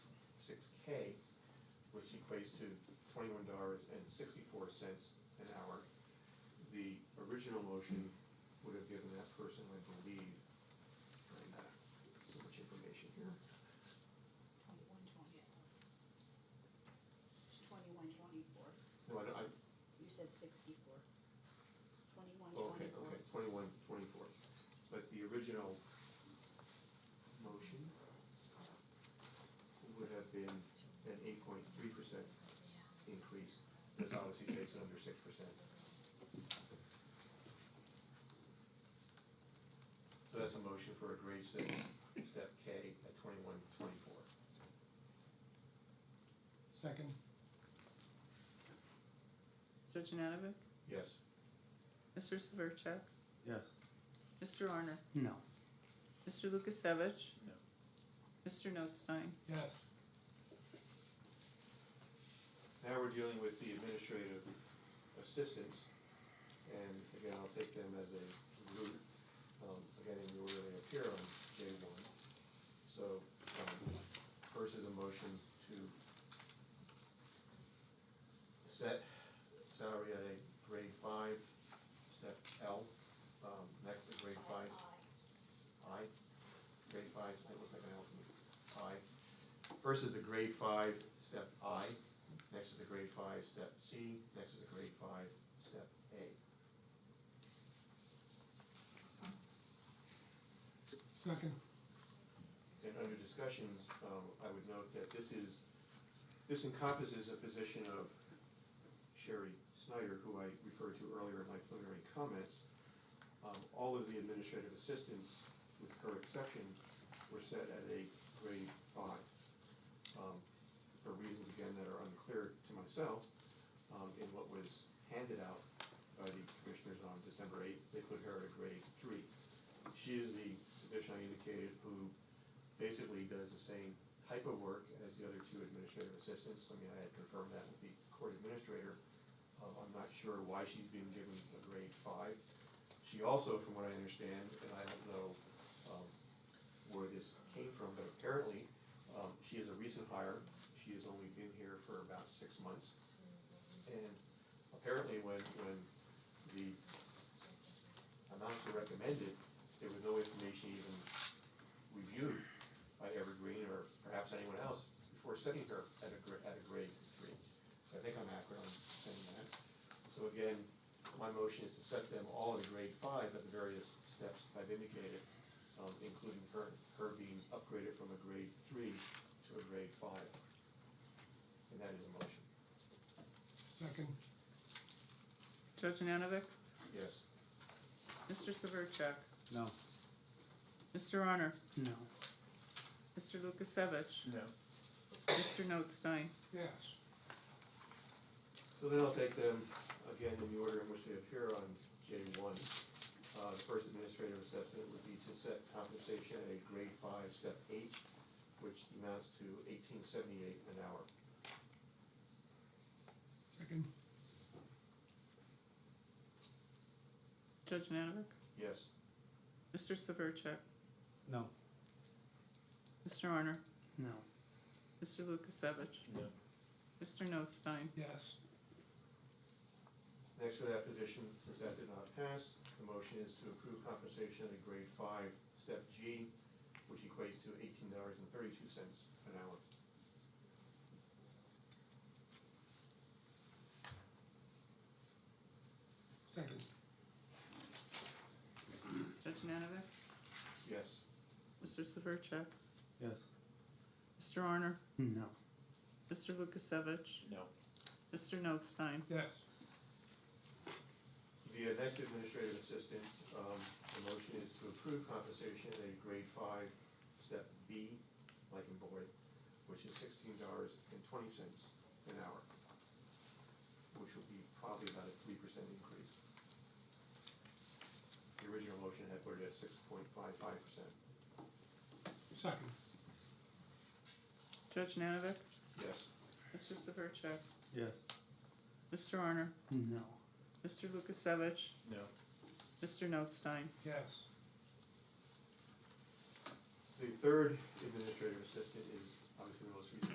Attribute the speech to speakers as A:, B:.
A: K, which equates to twenty-one dollars and sixty-four cents an hour. The original motion would have given that person, I believe, and, uh, so much information here.
B: Twenty-one, twenty-four. It's twenty-one, twenty-four.
A: No, I, don't- I,
B: You said sixty-four. Twenty-one,
A: Oh, Okay,
B: twenty-four.
A: okay, twenty-one, twenty-four. But the original motion would have been an eight point three percent increase, that's obviously takes it under six percent. So that's a motion for a grade six, step K at twenty-one, twenty-four.
C: Second.
D: Judge Nanovic?
A: Yes,
D: Mr. Severcek?
E: Yes.
D: Mr. Arner?
E: No.
D: Mr. Lukasevich?
E: No.
D: Mr. Notstein?
C: Yes.
A: now we're dealing with the administrative assistants, and again, I'll take them as a group, um, again, in the order they appear on J one. So, um, first is a motion to set salary at a grade five, step L, um, next to grade five. I, grade five, that looks like an L to me, I. First is the grade five, step I, next is the grade five, step C, next is the grade five, step A.
C: Second.
A: And under discussions, um, I would note that this is, this encompasses a position of Sherry Snyder, who I referred to earlier in my preliminary comments. Um, all of the administrative assistants, with her exception, were set at a grade five. Um, for reasons again that are unclear to myself, um, in what was handed out by the commissioners on December eighth, they put her at a grade three. She is the position I indicated who basically does the same type of work as the other two administrative assistants. I mean, I had confirmed that with the court administrator. Uh, I'm not sure why she's being given a grade five. She also, from what I understand, and I don't know um, where this came from, but apparently, um, she is a recent hire. She has only been here for about six months. And apparently, when, when the announcer recommended, there was no information even reviewed by Evergreen or perhaps anyone else before setting her at a, gra- at a grade three. I think I'm accurate on saying that. So again, my motion is to set them all at a grade five at the various steps I've indicated, um, including her, her being upgraded from a grade three to a grade five. And that is a motion.
C: Second.
D: Judge Nanovic?
A: Yes.
D: Mr. Severcek?
E: No.
D: Mr. Arner?
E: No.
D: Mr. Lukasevich?
E: No.
D: Mr. Notstein?
C: Yes.
A: So then I'll take them again in the order in which they appear on J one. Uh, the first administrative assessment would be to set compensation at a grade five, step eight, which amounts to eighteen seventy-eight an hour.
C: Second.
D: Judge Nanovic?
A: Yes,
D: Mr. Severcek?
E: No.
D: Mr. Arner?
E: No.
D: Mr. Lukasevich?
E: No.
D: Mr. Notstein?
C: Yes.
A: next for that position, since that did not pass, the motion is to approve compensation at a grade five, step G, which equates to eighteen dollars and thirty-two cents an hour.
C: Second.
D: Judge Nanovic?
A: Yes.
D: Mr. Severcek?
E: Yes.
D: Mr. Arner?
E: No.
D: Mr. Lukasevich?
A: No.
D: Mr. Notstein?
C: Yes.
A: The next administrative assistant, um, the motion is to approve compensation at a grade five, step B, like in board, which is sixteen dollars and twenty cents an hour, which will be probably about a three percent increase. The original motion had put it at six point five five percent.
C: Second.
D: Judge Nanovic?
A: Yes.
D: Mr. Severcek?
E: Yes.
D: Mr. Arner?
E: No.
D: Mr. Lukasevich?
A: No.
D: Mr. Notstein?
C: Yes.
A: The third administrative assistant is